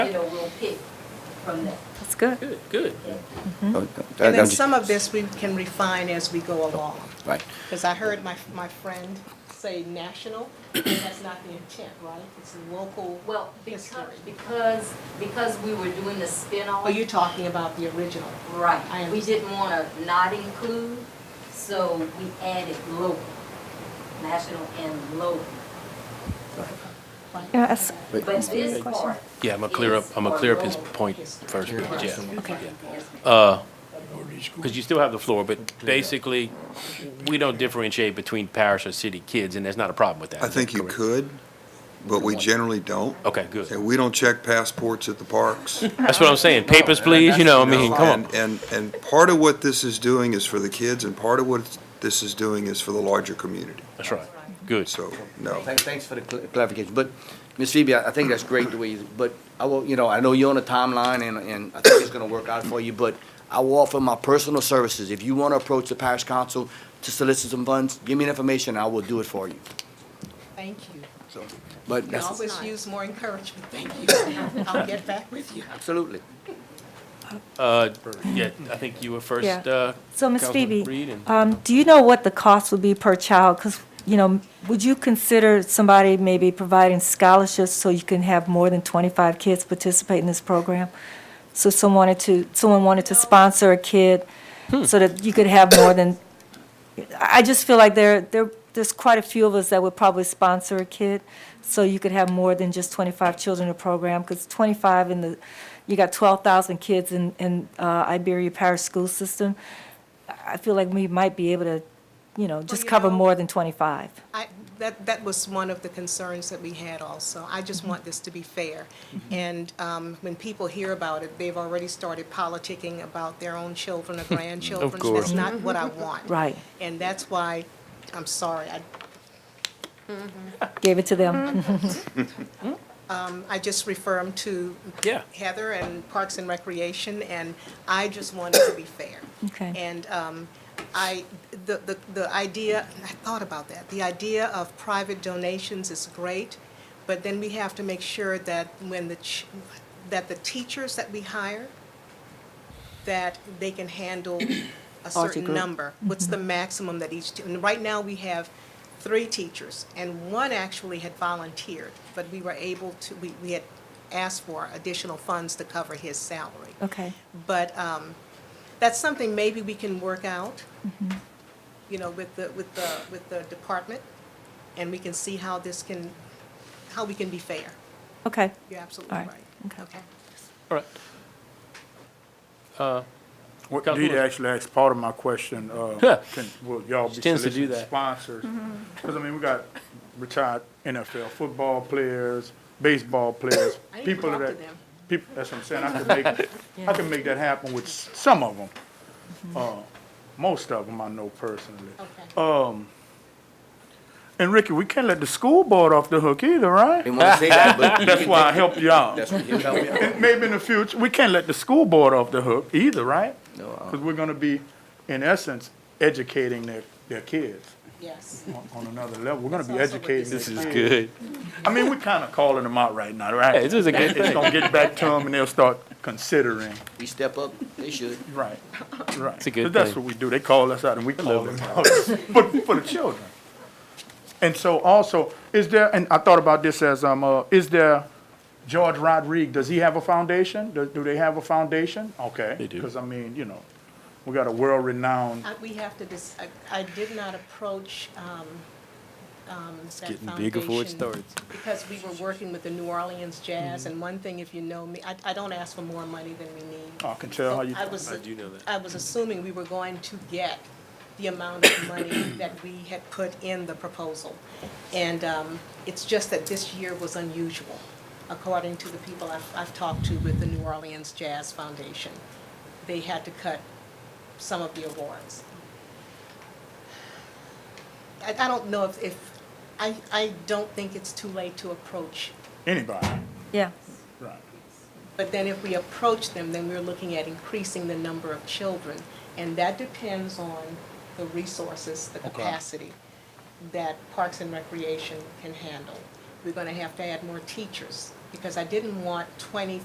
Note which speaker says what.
Speaker 1: pick from that.
Speaker 2: That's good.
Speaker 3: Good, good.
Speaker 4: Oh, I-
Speaker 5: Mm-hmm. And
Speaker 4: I'm
Speaker 5: then
Speaker 4: ju-
Speaker 5: some of this we can refine as we go along.
Speaker 4: Right.
Speaker 5: Because I heard my, my friend say national, and that's not the intent, right? It's local.
Speaker 1: Well, because,
Speaker 5: History.
Speaker 1: because, because we were doing the spin-off.
Speaker 5: Are Oh, you talking about the original? I
Speaker 1: Right, we
Speaker 5: understand.
Speaker 1: didn't wanna not include, so we added local, national and local.
Speaker 2: Yeah, that's-
Speaker 4: But-
Speaker 1: But this part.
Speaker 3: Yeah, I'm gonna clear up, I'm gonna clear up his
Speaker 1: is for
Speaker 3: point
Speaker 5: history.
Speaker 3: first, but yeah.
Speaker 2: Okay.
Speaker 3: Uh, because you still have the floor, but basically, we don't differentiate between parish or city kids, and there's not a problem with that.
Speaker 6: I
Speaker 3: is that
Speaker 6: think you
Speaker 3: correct?
Speaker 6: could, but we generally don't.
Speaker 3: Okay, good.
Speaker 6: And we don't check passports at the parks.
Speaker 3: That's what I'm saying. Papers, please, you know, I mean, come on.
Speaker 6: And, and, and part of what this is doing is for the kids, and part of what this is doing is for the larger community.
Speaker 3: That's right. Good.
Speaker 6: So, no.
Speaker 7: Thanks, thanks for the cl- clarification, but, Ms. Phoebe, I I think that's great the way, you- but I will, you know, I know you're on a timeline and, and I think it's gonna work out for you, but I will offer my personal services. If you wanna approach the parish council to solicit some funds, give me the information, I will do it for you,
Speaker 5: Thank you.
Speaker 7: so. But
Speaker 5: You
Speaker 7: that's,
Speaker 5: always use more encouragement, thank you. I'll get back with you.
Speaker 7: absolutely.
Speaker 3: Uh, yeah, I think you were first,
Speaker 2: Yeah.
Speaker 3: uh.
Speaker 2: So, Ms.
Speaker 3: Councilman
Speaker 2: Phoebe,
Speaker 3: Reed, and-
Speaker 2: um, do you know what the cost would be per child? Because, you know, would you consider somebody maybe providing scholarships so you can have more than 25 kids participate in this program? So someone wanted to, someone wanted to sponsor a kid so that you could have more than, I I just feel like there, there, there's quite a few of us that would probably sponsor a kid, so you could have more than just 25 children in a program, because 25 in the, you got 12,000 kids in, in uh, Iberia Parish School System. I I feel like we might be able to, you know, just
Speaker 5: you
Speaker 2: cover
Speaker 5: know-
Speaker 2: more than 25.
Speaker 5: I, that, that was one of the concerns that we had also. I just want this to be fair.
Speaker 4: Mm-hmm.
Speaker 5: And um, when people hear about it, they've already started politicking about their own children or grandchildren. so
Speaker 3: course.
Speaker 5: That's not what I want.
Speaker 2: Right.
Speaker 5: And that's why, I'm sorry, I,
Speaker 2: Gave it to them.
Speaker 5: Mm-hmm. I just refer them to
Speaker 3: Yeah.
Speaker 5: Heather and Parks and Recreation, and I just want it to be fair.
Speaker 2: Okay.
Speaker 5: And um, I, the, the, the idea, I thought about that, the idea of private donations is great, but then we have to make sure that when the, ch- that the teachers that we hire, that they can handle a certain
Speaker 2: group.
Speaker 5: number. What's
Speaker 2: Mm-hmm.
Speaker 5: the maximum that each, te- and right now, we have three teachers, and one actually had volunteered, but we were able to, we, we had asked for additional funds to cover his salary.
Speaker 2: Okay,
Speaker 5: But um, that's something maybe we can work out,
Speaker 2: Mm-hmm.
Speaker 5: you know, with the, with the, with the department, and we can see how this can, how we can be fair.
Speaker 2: okay.
Speaker 5: You're absolutely
Speaker 2: All right.
Speaker 5: right.
Speaker 2: Okay.
Speaker 3: All right.
Speaker 8: What
Speaker 3: Councilwoman-
Speaker 8: Deidre actually asked part of my question,
Speaker 3: Yeah.
Speaker 8: uh, can, will y'all
Speaker 3: She
Speaker 8: be
Speaker 3: tends to do
Speaker 8: soliciting
Speaker 3: that.
Speaker 8: sponsors?
Speaker 5: Mm-hmm.
Speaker 8: Because, I mean, we got retired NFL football players, baseball players,
Speaker 5: I need to
Speaker 8: people
Speaker 5: talk to
Speaker 8: that,
Speaker 5: them.
Speaker 8: people, that's what I'm saying, I can make, I can make that happen with s- some of them.
Speaker 5: Mm-hmm.
Speaker 8: Uh, most of them I know personally.
Speaker 5: Okay.
Speaker 8: And Ricky, we can't let the school board off the hook either, right?
Speaker 7: Didn't wanna say that, but.
Speaker 8: That's why I helped you out.
Speaker 7: That's what you help me out.
Speaker 8: And Maybe in the future, we can't let the school board off the hook either, right?
Speaker 7: No, uh.
Speaker 3: uh-uh.
Speaker 8: Because we're gonna be, in essence, educating their, their kids
Speaker 5: Yes.
Speaker 8: on, on another level. We're gonna be
Speaker 5: That's also what
Speaker 8: educating
Speaker 5: this
Speaker 8: their
Speaker 3: This is
Speaker 8: kids.
Speaker 3: good.
Speaker 8: I mean, we're kinda calling them out right now, right?
Speaker 3: Hey, this is a good
Speaker 8: It's
Speaker 3: thing.
Speaker 8: gonna get back to them and they'll start considering,
Speaker 7: We step up, they should.
Speaker 8: right, right.
Speaker 3: a good
Speaker 8: 'Cause That's
Speaker 3: thing.
Speaker 8: what we do. They call us out and we call them out, but for the children. And so also, is there, and I thought about this as, um, uh, is there, George Rodriguez, does he have a foundation? Do, do they have a foundation? Okay.
Speaker 3: They do.
Speaker 8: Because I mean, you know, we got a world-renowned, uh,
Speaker 3: Um,
Speaker 5: I- We have to, dis- I- I did not approach um, um, that
Speaker 3: getting big before it
Speaker 5: foundation
Speaker 3: starts. Mm-hmm.
Speaker 5: Because we were working with the New Orleans Jazz, and one thing, if you know me, I- I don't ask for more money than we need.
Speaker 8: I can tell how you.
Speaker 5: I was,
Speaker 3: do know that.
Speaker 5: I was assuming we were going to get the amount of money that we had put in the proposal. And um, it's just that this year was unusual, according to the people I've, I've talked to with the New Orleans Jazz Foundation. They had to cut some of the awards. I, I don't know if, if, I, I don't think it's too late to approach
Speaker 8: Anybody,
Speaker 2: Yeah,
Speaker 8: right.
Speaker 5: but then if we approach them, then we're looking at increasing the number of children. And that depends on the resources, the capacity that Parks and Recreation can handle. We're gonna have to add more teachers, because I didn't want twenty